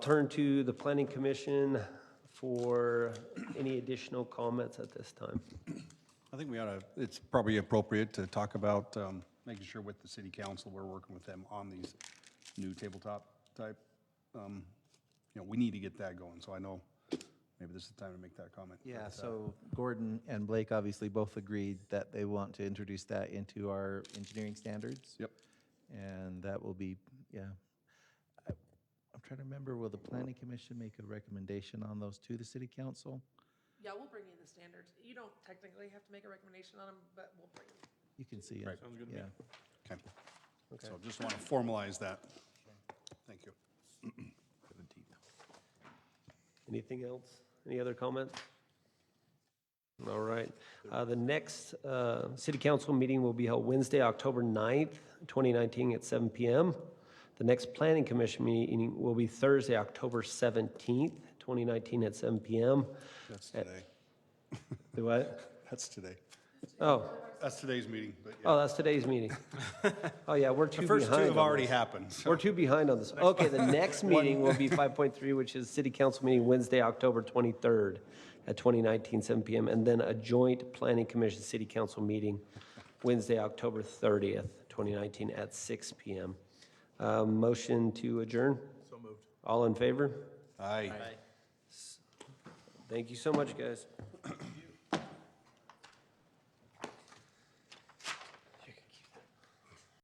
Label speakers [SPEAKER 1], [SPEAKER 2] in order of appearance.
[SPEAKER 1] Turn to the planning commission for any additional comments at this time.
[SPEAKER 2] I think we ought to, it's probably appropriate to talk about um, making sure with the city council, we're working with them on these new tabletop type. um, You know, we need to get that going, so I know maybe this is the time to make that comment.
[SPEAKER 3] Yeah, so Gordon and Blake obviously both agreed that they want to introduce that into our engineering standards.
[SPEAKER 2] Yep.
[SPEAKER 3] And that will be, yeah. I- I'm trying to remember, will the planning commission make a recommendation on those to the city council?
[SPEAKER 4] Yeah, we'll bring you the standards. You don't technically have to make a recommendation on them, but we'll bring them.
[SPEAKER 3] You can see it. Sounds good to me.
[SPEAKER 2] Okay. So just want to formalize that. Thank you.
[SPEAKER 1] Anything else? Any other comments? All right. Uh, The next uh, city council meeting will be held Wednesday, October 9th, 2019, at 7 PM. The next planning commission meeting will be Thursday, October 17th, 2019, at 7 PM.
[SPEAKER 2] That's today.
[SPEAKER 1] Do what?
[SPEAKER 2] That's today.
[SPEAKER 1] Oh,
[SPEAKER 2] That's today's meeting, but yeah.
[SPEAKER 1] oh, that's today's meeting. Oh, yeah, we're two
[SPEAKER 2] The
[SPEAKER 1] behind.
[SPEAKER 2] first two
[SPEAKER 1] on
[SPEAKER 2] have already
[SPEAKER 1] this.
[SPEAKER 2] happened, so
[SPEAKER 1] We're two behind on this. Okay, the next meeting will be 5.3, which is city council meeting Wednesday, October 23rd at 2019, 7 PM, and then a joint planning commission city council meeting Wednesday, October 30th, 2019, at 6 PM. Uh, Motion to adjourn? So moved. All in favor?
[SPEAKER 2] aye.
[SPEAKER 1] Thank you so much, guys.